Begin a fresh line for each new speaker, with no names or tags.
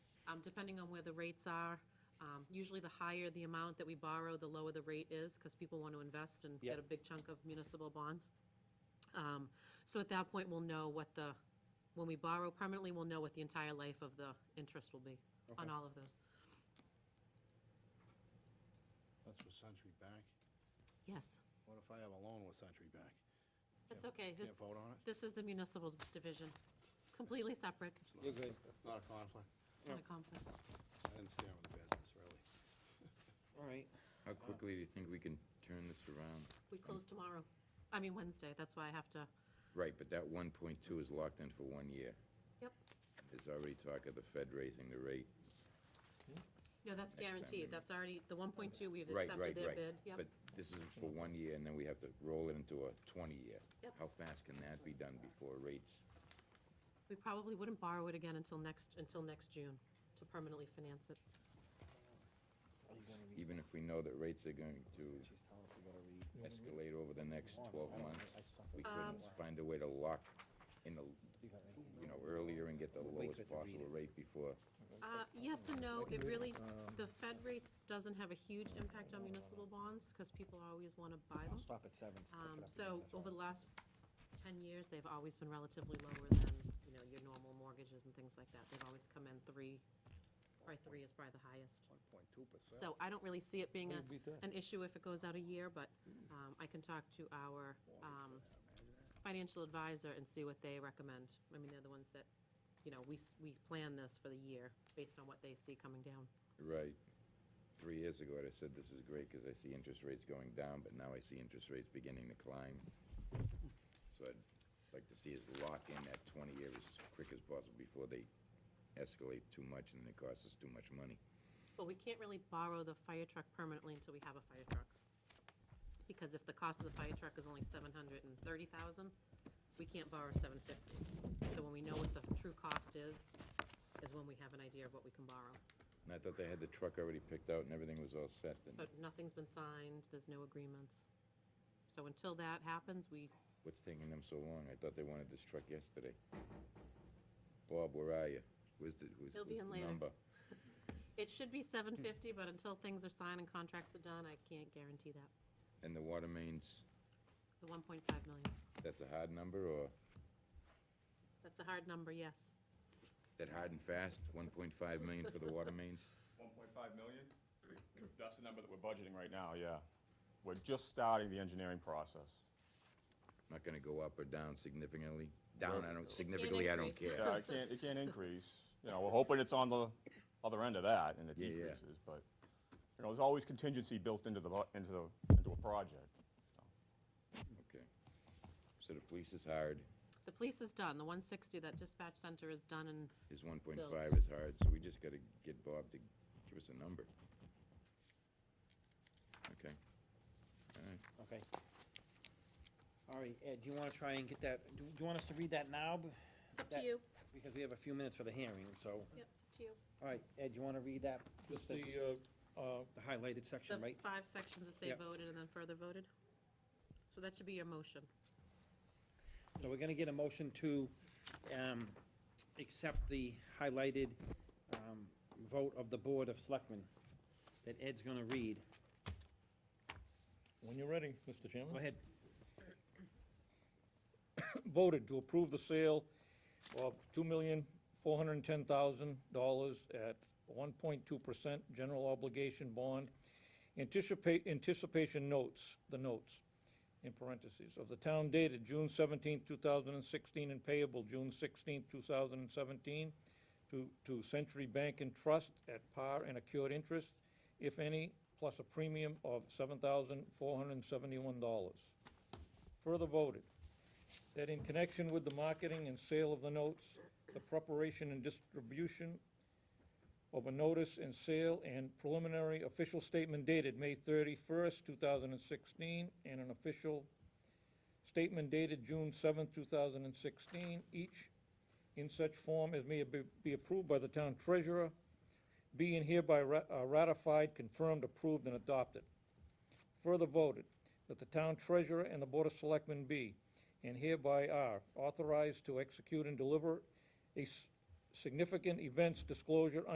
um, depending on where the rates are. Um, Usually the higher the amount that we borrow, the lower the rate is, because people want to invest and get
Yep.
a big chunk of municipal bonds. Um, So at that point, we'll know what the, when we borrow permanently, we'll know what the entire life of the interest will be on
Okay.
all of those.
That's with Century Bank.
Yes,
What if I have a loan with Century Bank?
that's
Yeah,
okay.
Can't
It's-
vote on it?
This is the municipal division. It's Completely separate.
It's not-
You're good.
Not a conflict.
It's not a conflict.
I didn't stand with the business, really.
All right.
How quickly do you think we can turn this around?
We close tomorrow. I mean, Wednesday. That's why I have to,
Right, but that one point two is locked in for one year.
Yep.
There's already talk of the Fed raising the rate.
no, that's
time
guaranteed.
we-
That's already, the 1.2, we've
Right, right,
accepted their
right.
bid. Yep.
But this is for one year, and then we have to roll it into a twenty-year.
Yep.
How fast can that be done before rates?
We probably wouldn't borrow it again until next, until next June to permanently finance it.
Are you gonna read
Even if we know that rates are going to
what she's telling us we gotta read?
escalate over the next twelve
I don't-
months,
I just don't-
we
Um,
couldn't find a way to lock in the,
You got it.
you know, earlier and get the
Wait
lowest
for it to read
possible
it.
rate before.
Uh, Yes and no, it really, the Fed rates doesn't have a huge impact on municipal bonds because people always want to buy
I'll
them.
stop at seven. so pick it
Um,
up
So
again, that's
over
all.
the last 10 years, they've always been relatively lower than, you know, your normal mortgages and things like that. They've always come in three, probably three is probably the highest.
One point two percent.
So I don't really see it being a,
Who'd beat that?
an issue if it goes out a year, but um, I can talk to our um, financial advisor and see what they recommend. I mean, they're the ones that, you know, we, s- we plan this for the year based on what they see coming down.
Right. Three years ago, I'd have said this is great because I see interest rates going down, but now I see interest rates beginning to climb. So I'd like to see us lock in that twenty years as quick as possible before they escalate too much and then it costs us too much money.
But we can't really borrow the fire truck permanently until we have a fire truck. Because if the cost of the fire truck is only seven hundred and thirty thousand, we can't borrow seven fifty. So when we know what the true cost is, is when we have an idea of what we can borrow.
And I thought they had the truck already picked out and everything was all set then.
But nothing's been signed, there's no agreements. So until that happens, we,
What's taking them so long? I thought they wanted this truck yesterday. Bob, where are you? Where's the, who's,
He'll
who's
be in
the
later.
number?
it should be seven
Hmm.
fifty, but until things are signed and contracts are done, I can't guarantee that.
And the water mains,
The one point five million,
that's a hard number or
that's a hard number, yes.
that hard and fast, one point five million for the water mains?
1.5 million? That's the number that we're budgeting right now, yeah. We're just starting the engineering process.
Not gonna go up or down significantly. Down, I don't, significantly,
significantly,
I
I
don't
don't increase.
care.
Yeah, it can't, it can't increase. You know, we're hoping it's on the other end of that and it
Yeah, yeah.
decreases, but, you know, there's always contingency built into the, bu- into the, into a project.
Okay. So the police is hard,
The police is done, the one sixty, that dispatch center is done and
his one point five
Bills.
is hard, so we just gotta get Bob to give us a number. Okay. All right.
Okay. All right, Ed, do you wanna try and get that, do do you want us to read that now? B-
it's up to
that-
you.
Because we have a few minutes for the hearing, so,
Yep, it's up to you.
all right, Ed, you wanna read that,
Just the, uh, uh,
the highlighted
The
section, right?
five sections that they
Yep.
voted and then further voted. So that should be your motion.
So we're gonna get a motion to, um, accept the highlighted, um, vote of the Board of Selectmen that Ed's gonna read.
when you're ready, Mr.
Go
Chairman.
ahead.
Voted to approve the sale of two million, four hundred and ten thousand dollars at one point two percent general obligation bond. Anticipate, anticipation notes, the notes, in parentheses, of the town dated June seventeenth, two thousand and sixteen, and payable June sixteenth, two thousand and seventeen, to, to Century Bank and Trust at par and accrued interest, if any, plus a premium of seven thousand four hundred and seventy-one dollars. Further voted, that in connection with the marketing and sale of the notes, the preparation and distribution of a notice and sale and preliminary official statement dated May thirty-first, two thousand and sixteen, and an official statement dated June seventh, two thousand and sixteen, each in such form as may be- be approved by the town treasurer, being hereby ra- uh, ratified, confirmed, approved, and adopted. Further voted, that the town treasurer and the board of selectmen be, and hereby are, authorized to execute and deliver a s- significant events disclosure